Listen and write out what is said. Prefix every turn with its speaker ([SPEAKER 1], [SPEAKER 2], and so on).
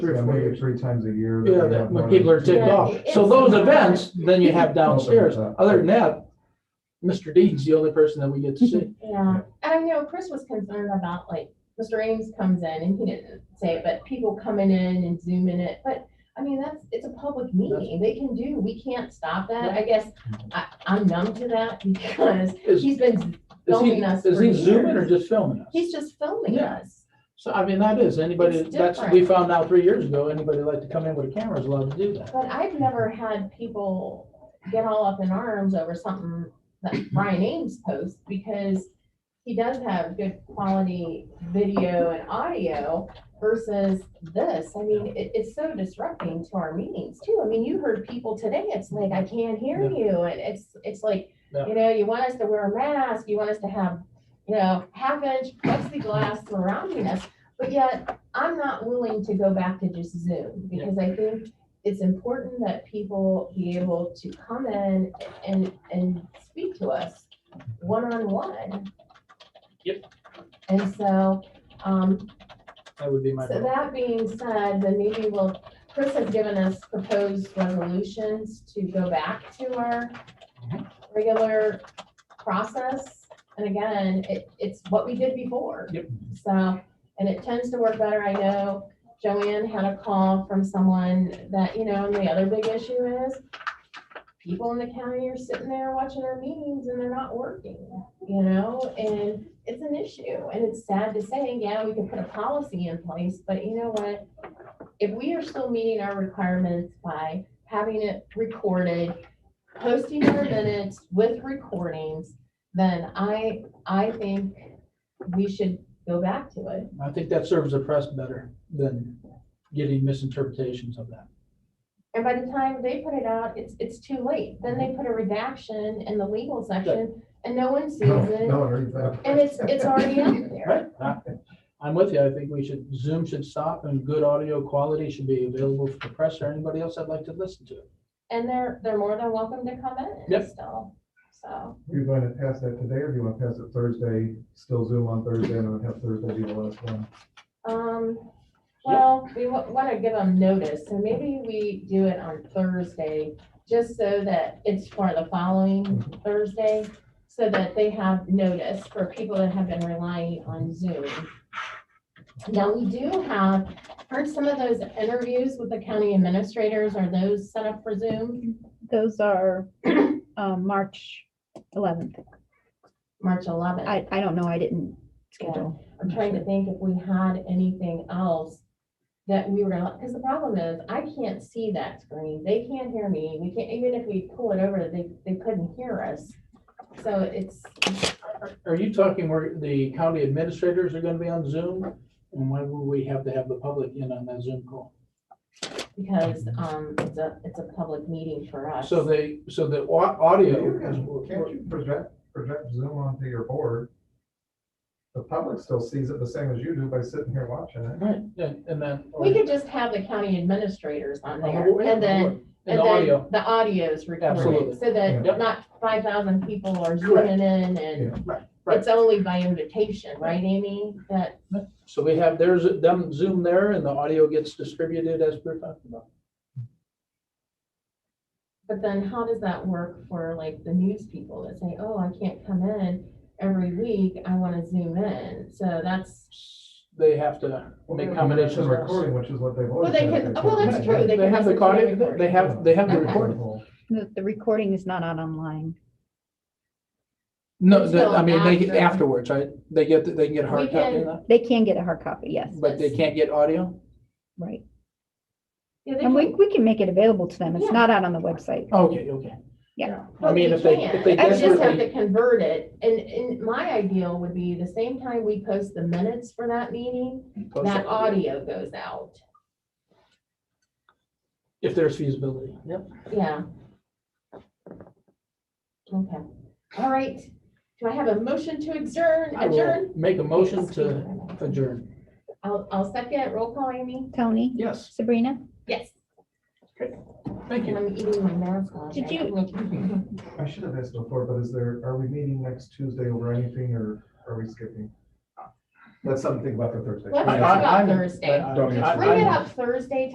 [SPEAKER 1] Three
[SPEAKER 2] Yeah,
[SPEAKER 1] or four
[SPEAKER 2] maybe
[SPEAKER 1] years.
[SPEAKER 2] three times a year. they
[SPEAKER 1] Yeah,
[SPEAKER 2] have
[SPEAKER 1] that-
[SPEAKER 2] more
[SPEAKER 1] when people are
[SPEAKER 2] than-
[SPEAKER 1] ticked
[SPEAKER 3] Yeah,
[SPEAKER 1] off.
[SPEAKER 3] it's-
[SPEAKER 1] So those events, then you have
[SPEAKER 2] Help them
[SPEAKER 1] downstairs.
[SPEAKER 2] with that.
[SPEAKER 1] Other than that, Mr. Dean's the only person that we get to see.
[SPEAKER 3] Yeah, and I know Chris was concerned about like, Mr. Ames comes in and he didn't say it, but people coming in and zooming it, but I mean, that's, it's a public meeting, they can do, we can't stop that, I guess. I, I'm numb to that because
[SPEAKER 1] Is, is
[SPEAKER 3] he's been,
[SPEAKER 1] he,
[SPEAKER 3] filming us
[SPEAKER 1] is
[SPEAKER 3] for
[SPEAKER 1] he zooming or
[SPEAKER 3] years.
[SPEAKER 1] just filming us?
[SPEAKER 3] he's just filming
[SPEAKER 1] Yeah.
[SPEAKER 3] us.
[SPEAKER 1] So I mean, that is, anybody,
[SPEAKER 3] It's
[SPEAKER 1] that's, we
[SPEAKER 3] different.
[SPEAKER 1] found out three years ago, anybody like to come in with a camera is allowed to do that.
[SPEAKER 3] But I've never had people get all up in arms over something that Brian Ames posts because he does have good quality video and audio versus this. I mean, it, it's so disrupting to our meetings too. I mean, you heard people today, it's like, I can't hear
[SPEAKER 1] Yeah.
[SPEAKER 3] you. And it's, it's like,
[SPEAKER 1] Yeah.
[SPEAKER 3] you know, you want us to wear a mask, you want us to have, you know, half inch plexiglass surrounding us. But yet I'm not willing to go back to just Zoom because I think it's important that people be able to come in and, and speak to us one-on-one.
[SPEAKER 1] Yep.
[SPEAKER 3] And so, um,
[SPEAKER 1] That would be my.
[SPEAKER 3] so
[SPEAKER 1] vote.
[SPEAKER 3] that being said, then maybe we'll, Chris has given us proposed resolutions to go back to our
[SPEAKER 1] Mm-hmm.
[SPEAKER 3] regular process. And again, it, it's what we did before.
[SPEAKER 1] Yep.
[SPEAKER 3] So, and it tends to work better. I know Joanne had a call from someone that, you know, and the other big issue is people in the county are sitting there watching our meetings and they're not working, you know, and it's an issue, and it's sad to say, yeah, we can put a policy in place, but you know what? If we are still meeting our requirements by having it recorded, posting our minutes with recordings, then I, I think we should go back to it.
[SPEAKER 1] I think that serves the press better than getting misinterpretations of that.
[SPEAKER 3] And by the time they put it out, it's, it's too late. Then they put a redaction in the legal section, and no one sees
[SPEAKER 2] No,
[SPEAKER 3] it,
[SPEAKER 2] no one reads that.
[SPEAKER 3] and it's, it's already out there.
[SPEAKER 1] Right? I- I'm with you. I think we should, Zoom should stop and good audio quality should be available for the press or anybody else that'd like to listen to it.
[SPEAKER 3] And they're, they're more than welcome to come in
[SPEAKER 1] Yep.
[SPEAKER 3] still, so.
[SPEAKER 2] You want to pass that today or do you want to pass it Thursday, still Zoom on Thursday and then have Thursday be the last one?
[SPEAKER 3] Um, well, we want to give them notice, so maybe we do it on Thursday, just so that it's for the following Thursday, so that they have notice for people that have been relying on Zoom. Now, we do have, aren't some of those interviews with the county administrators, are those set up for Zoom?
[SPEAKER 4] Those are um, March 11th.
[SPEAKER 3] March 11th?
[SPEAKER 4] I, I don't know, I didn't schedule.
[SPEAKER 3] I'm trying to think if we had anything else that we were gonna, because the problem is, I can't see that screen, they can't hear me, we can't, even if we pull it over, they, they couldn't hear us. So it's,
[SPEAKER 1] Are you talking where the county administrators are gonna be on Zoom? And why would we have to have the public in on that Zoom call?
[SPEAKER 3] because, um, it's a, it's a public meeting for us.
[SPEAKER 1] So they, so the au-
[SPEAKER 2] You
[SPEAKER 1] audio.
[SPEAKER 2] can- Can't
[SPEAKER 1] is-
[SPEAKER 2] you project, project Zoom onto your board? The public still sees it the same as you do by sitting here watching it.
[SPEAKER 1] Right, and and then. Uh-huh.
[SPEAKER 3] We could just have the county administrators on there,
[SPEAKER 1] Uh,
[SPEAKER 3] and then,
[SPEAKER 1] And
[SPEAKER 3] and
[SPEAKER 1] the
[SPEAKER 3] then
[SPEAKER 1] audio.
[SPEAKER 3] the audio's
[SPEAKER 1] Absolutely.
[SPEAKER 3] recorded, so
[SPEAKER 1] Yep.
[SPEAKER 3] that not five thousand people are
[SPEAKER 1] Correct.
[SPEAKER 3] zooming in, and
[SPEAKER 1] Right, right.
[SPEAKER 3] it's only by invitation, right, Amy? That,
[SPEAKER 1] So we have, there's them Zoom there and the audio gets distributed as we're talking about.
[SPEAKER 3] But then how does that work for like the news people that say, oh, I can't come in every week, I wanna zoom in, so that's,
[SPEAKER 1] They have to make
[SPEAKER 2] It's
[SPEAKER 1] accommodations.
[SPEAKER 2] a Recording, which is what they've always.
[SPEAKER 3] they
[SPEAKER 2] done.
[SPEAKER 3] can- well, that's true.
[SPEAKER 1] They have the audio, they have, they have the
[SPEAKER 3] Okay.
[SPEAKER 1] recording.
[SPEAKER 4] The, the recording is not out online.
[SPEAKER 1] No, the-
[SPEAKER 3] Until
[SPEAKER 1] I mean, they get
[SPEAKER 3] after.
[SPEAKER 1] afterwards, right? They get, the- they can get a hard
[SPEAKER 3] We
[SPEAKER 1] copy of
[SPEAKER 3] can-
[SPEAKER 1] that,
[SPEAKER 4] They can get a hard copy, yes,
[SPEAKER 1] but they can't get audio?
[SPEAKER 4] right.
[SPEAKER 3] yeah, they
[SPEAKER 4] And we,
[SPEAKER 3] can,
[SPEAKER 4] we can make it available to them.
[SPEAKER 3] Yeah.
[SPEAKER 4] It's not out on the website.
[SPEAKER 1] Okay, okay.
[SPEAKER 4] Yeah.
[SPEAKER 1] I
[SPEAKER 3] but we
[SPEAKER 1] mean, if they, if
[SPEAKER 3] can,
[SPEAKER 1] they
[SPEAKER 3] they just have
[SPEAKER 1] desperately,
[SPEAKER 3] to convert it, and, and my ideal would be the same time we post the minutes for that meeting, that audio goes out,
[SPEAKER 1] if there's feasibility. Yep.
[SPEAKER 3] yeah. Okay, all right, do I have a motion to adjourn,
[SPEAKER 1] I
[SPEAKER 3] adjourn?
[SPEAKER 1] will make a motion to adjourn.
[SPEAKER 3] I'll, I'll second, roll call, Amy?
[SPEAKER 4] Tony,
[SPEAKER 1] Yes,
[SPEAKER 4] Sabrina,
[SPEAKER 3] Yes.
[SPEAKER 1] thank you.
[SPEAKER 3] I'm eating my mask off.
[SPEAKER 4] Did you-
[SPEAKER 2] I should have asked before, but is there, are we meeting next Tuesday over anything or are we skipping?
[SPEAKER 1] That's something to think about for Thursday.
[SPEAKER 2] Let's
[SPEAKER 3] I-
[SPEAKER 2] talk
[SPEAKER 3] I-
[SPEAKER 2] about
[SPEAKER 3] I'm-
[SPEAKER 2] Thursday.
[SPEAKER 3] I- I-
[SPEAKER 1] Don't answer
[SPEAKER 3] I-
[SPEAKER 2] Bring it
[SPEAKER 3] I'm-
[SPEAKER 2] up Thursday